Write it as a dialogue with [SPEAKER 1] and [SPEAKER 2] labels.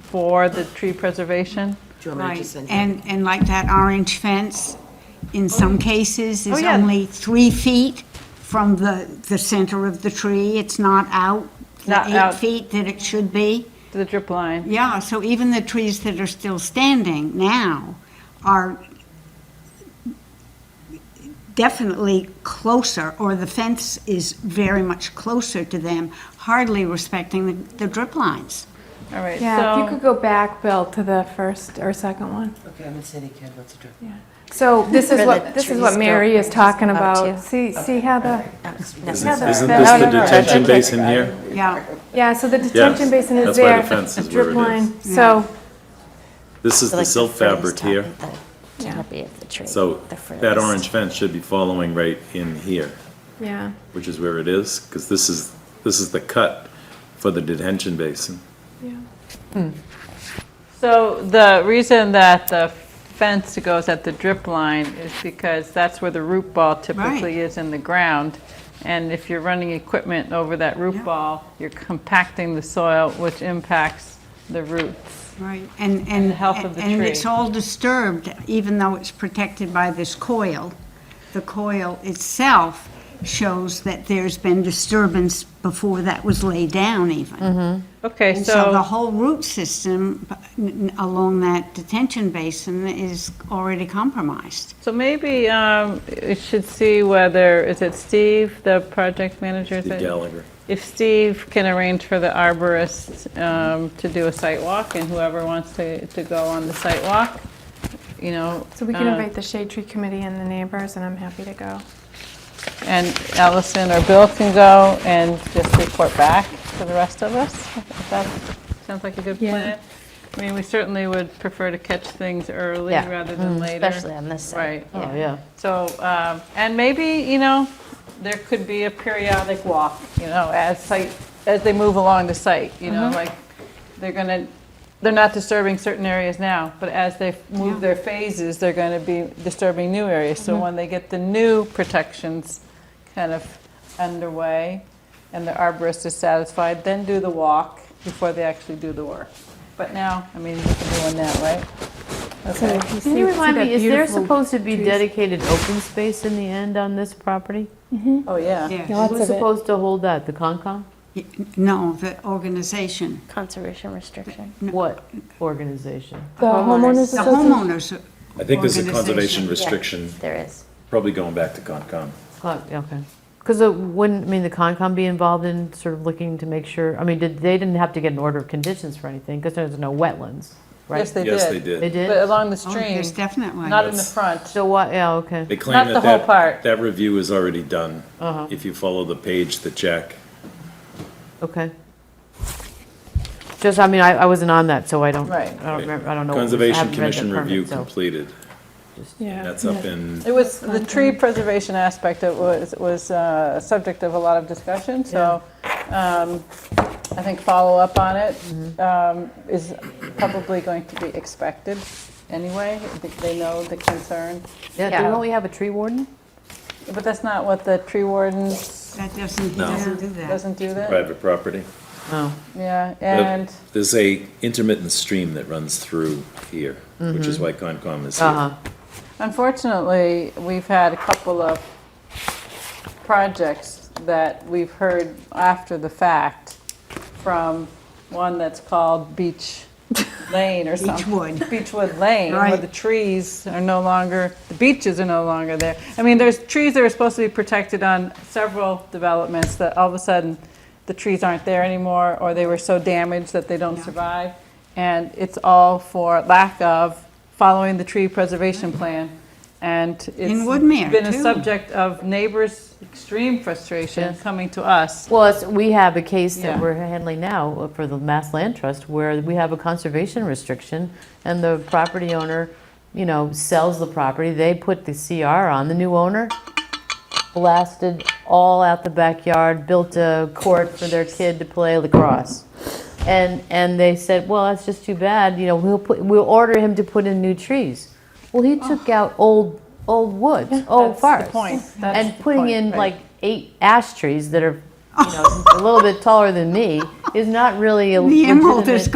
[SPEAKER 1] for the tree preservation?
[SPEAKER 2] Do you want me to
[SPEAKER 3] Right,
[SPEAKER 2] send you?
[SPEAKER 3] and, and like that orange fence, in some cases,
[SPEAKER 1] Oh,
[SPEAKER 3] is
[SPEAKER 1] yeah.
[SPEAKER 3] only three feet from the, the center of the tree. It's not out the
[SPEAKER 1] Not
[SPEAKER 3] eight
[SPEAKER 1] out.
[SPEAKER 3] feet that it should be.
[SPEAKER 1] The drip line?
[SPEAKER 3] Yeah, so even the trees that are still standing now are definitely closer, or the fence is very much closer to them, hardly respecting the- the drip lines.
[SPEAKER 1] All right,
[SPEAKER 4] Yeah, if you
[SPEAKER 1] so,
[SPEAKER 4] could go back, Bill, to the first or second one.
[SPEAKER 2] Okay, I'm in City Kid, what's the drip?
[SPEAKER 4] So this is
[SPEAKER 5] Where
[SPEAKER 4] what,
[SPEAKER 5] the
[SPEAKER 4] this is
[SPEAKER 5] trees
[SPEAKER 4] what Mary
[SPEAKER 5] go-
[SPEAKER 4] is talking
[SPEAKER 5] up
[SPEAKER 4] about.
[SPEAKER 5] to.
[SPEAKER 4] See, see how the,
[SPEAKER 5] Isn't
[SPEAKER 4] Yeah,
[SPEAKER 6] Isn't
[SPEAKER 4] the-
[SPEAKER 6] this
[SPEAKER 4] no,
[SPEAKER 6] the
[SPEAKER 4] no, no.
[SPEAKER 6] detention basin here?
[SPEAKER 3] Yeah,
[SPEAKER 4] yeah, so the detention basin is
[SPEAKER 6] that's why
[SPEAKER 4] there.
[SPEAKER 6] the fence is
[SPEAKER 4] a
[SPEAKER 6] where
[SPEAKER 4] drip
[SPEAKER 6] it is.
[SPEAKER 4] line. So,
[SPEAKER 6] This is
[SPEAKER 5] So
[SPEAKER 6] the
[SPEAKER 5] like
[SPEAKER 6] silt
[SPEAKER 5] fruit is
[SPEAKER 6] fabric
[SPEAKER 5] top
[SPEAKER 6] here,
[SPEAKER 5] of the-
[SPEAKER 4] Yeah.
[SPEAKER 5] Canopy of the tree.
[SPEAKER 6] so
[SPEAKER 5] the fruit
[SPEAKER 6] that
[SPEAKER 5] is-
[SPEAKER 6] orange fence should be following right in here,
[SPEAKER 4] yeah,
[SPEAKER 6] which is where it is, because this is, this is the cut for the detention basin.
[SPEAKER 4] yeah.
[SPEAKER 1] so the reason that the fence goes at the drip line is because that's where the root ball typically is in the ground. And if you're running equipment over that root
[SPEAKER 3] Yeah.
[SPEAKER 1] ball, you're compacting the soil, which impacts the roots.
[SPEAKER 3] right, and, and.
[SPEAKER 1] the health of the
[SPEAKER 3] And
[SPEAKER 1] tree.
[SPEAKER 3] it's all disturbed, even though it's protected by this coil. The coil itself shows that there's been disturbance before that was laid down even.
[SPEAKER 1] Okay,
[SPEAKER 3] And
[SPEAKER 1] Mm-hmm. so.
[SPEAKER 3] so the whole root system n- n- along that detention basin is already compromised.
[SPEAKER 1] So maybe um, we should see whether, is it Steve, the project manager? is
[SPEAKER 6] Steve
[SPEAKER 1] it?
[SPEAKER 6] Gallagher.
[SPEAKER 1] If Steve can arrange for the arborist um, to do a site walk and whoever wants to, to go on the site walk, you know.
[SPEAKER 4] So we can
[SPEAKER 1] uh,
[SPEAKER 4] invite the shade tree committee and the neighbors, and I'm happy to go.
[SPEAKER 1] And Allison or Bill can go and just report back to the rest of us. If That sounds like a good
[SPEAKER 4] Yeah.
[SPEAKER 1] plan. I mean, we certainly would prefer to catch things early
[SPEAKER 5] Yeah.
[SPEAKER 1] rather
[SPEAKER 4] Mm,
[SPEAKER 1] than later.
[SPEAKER 5] Especially on this side.
[SPEAKER 1] Right. Oh, So, um, and maybe, you know, there could be a periodic walk, you know, as site, as they move along the site, you know, like, they're gonna, they're not disturbing certain areas now, but as they move their phases, they're gonna be disturbing new areas. So when they get the new protections kind of underway, and the arborist is satisfied, then do the walk before they actually do the work. But now, I mean, we can do one now, right? Okay.
[SPEAKER 7] Can you remind me, is there supposed to be
[SPEAKER 4] trees?
[SPEAKER 7] dedicated open space in the end on this property?
[SPEAKER 1] Oh, yeah.
[SPEAKER 4] Lots
[SPEAKER 7] Who's
[SPEAKER 4] of it.
[SPEAKER 7] supposed to hold that, the Concom?
[SPEAKER 3] Y- No, the organization,
[SPEAKER 5] Conservation restriction.
[SPEAKER 7] What organization?
[SPEAKER 4] The homeowners
[SPEAKER 3] the
[SPEAKER 4] association.
[SPEAKER 3] homeowners. oh,
[SPEAKER 6] I think there's a conservation
[SPEAKER 3] Organization,
[SPEAKER 6] restriction,
[SPEAKER 5] There is.
[SPEAKER 6] probably going back to Concom.
[SPEAKER 7] Con- Okay. Because wouldn't, I mean, the Concom be involved in sort of looking to make sure, I mean, did, they didn't have to get an order of conditions for anything, because there's no wetlands, right?
[SPEAKER 1] Yes, they did.
[SPEAKER 6] Yes, they
[SPEAKER 7] They
[SPEAKER 6] did.
[SPEAKER 1] But
[SPEAKER 7] did?
[SPEAKER 1] along the
[SPEAKER 3] Oh,
[SPEAKER 1] stream,
[SPEAKER 3] there's definitely.
[SPEAKER 1] not in the
[SPEAKER 6] That's-
[SPEAKER 1] front.
[SPEAKER 7] So what, yeah, okay.
[SPEAKER 6] They claim
[SPEAKER 1] Not
[SPEAKER 6] that
[SPEAKER 1] the whole
[SPEAKER 6] that,
[SPEAKER 1] part.
[SPEAKER 6] that review is already done, if you follow the page, the check.
[SPEAKER 7] Okay. Just, I mean, I, I wasn't on that, so I don't, I
[SPEAKER 1] Right.
[SPEAKER 7] don't remember, I don't know. what was- I
[SPEAKER 6] Conservation
[SPEAKER 7] haven't read the
[SPEAKER 6] Commission
[SPEAKER 7] permit,
[SPEAKER 6] review
[SPEAKER 7] so-
[SPEAKER 6] completed,
[SPEAKER 4] Yeah.
[SPEAKER 6] that's up in,
[SPEAKER 1] It was, the tree preservation aspect of was, was uh, a subject of a lot of discussion, so um, I think follow-up on it um, is probably going to be expected anyway. I think they know the concern,
[SPEAKER 7] Yeah, don't we have a tree warden?
[SPEAKER 1] but that's not what the tree warden
[SPEAKER 3] That doesn't, he
[SPEAKER 6] No.
[SPEAKER 3] doesn't do that.
[SPEAKER 1] doesn't do that.
[SPEAKER 6] private property.
[SPEAKER 7] Oh.
[SPEAKER 1] Yeah,
[SPEAKER 6] But
[SPEAKER 1] and,
[SPEAKER 6] There's a intermittent stream that runs through here, which is why Concom is here.
[SPEAKER 7] Uh-huh,
[SPEAKER 1] Unfortunately, we've had a couple of projects that we've heard after the fact from one that's called Beach Lane or something.
[SPEAKER 3] Beechwood.
[SPEAKER 1] Beechwood Lane, where
[SPEAKER 3] Right.
[SPEAKER 1] the trees are no longer, the beaches are no longer there. I mean, there's trees that are supposed to be protected on several developments that all of a sudden, the trees aren't there anymore, or they were so damaged that they don't survive. And it's all for lack of following the tree preservation plan. And it's
[SPEAKER 3] Mm-hmm. In Woodmere,
[SPEAKER 1] Been a
[SPEAKER 3] too.
[SPEAKER 1] subject of neighbors' extreme frustration coming to us.
[SPEAKER 7] well, it's- we have a case that
[SPEAKER 1] Yeah.
[SPEAKER 7] we're handling now for the Mass Land Trust where we have a conservation restriction and the property owner, you know, sells the property, they put the CR on, the new owner blasted all out the backyard, built a court for their kid to play lacrosse. And, and they said, well, that's just too bad, you know, we'll put, we'll order him to put in new trees. Well, he took out old, old woods, old
[SPEAKER 1] Oh. that's the
[SPEAKER 7] forests.
[SPEAKER 1] point. That's
[SPEAKER 7] And
[SPEAKER 1] the
[SPEAKER 7] putting
[SPEAKER 1] point,
[SPEAKER 7] in
[SPEAKER 1] right.
[SPEAKER 7] like eight ash trees that are, you know, a little bit taller than me is not really a
[SPEAKER 3] The emerald is
[SPEAKER 7] legitimate.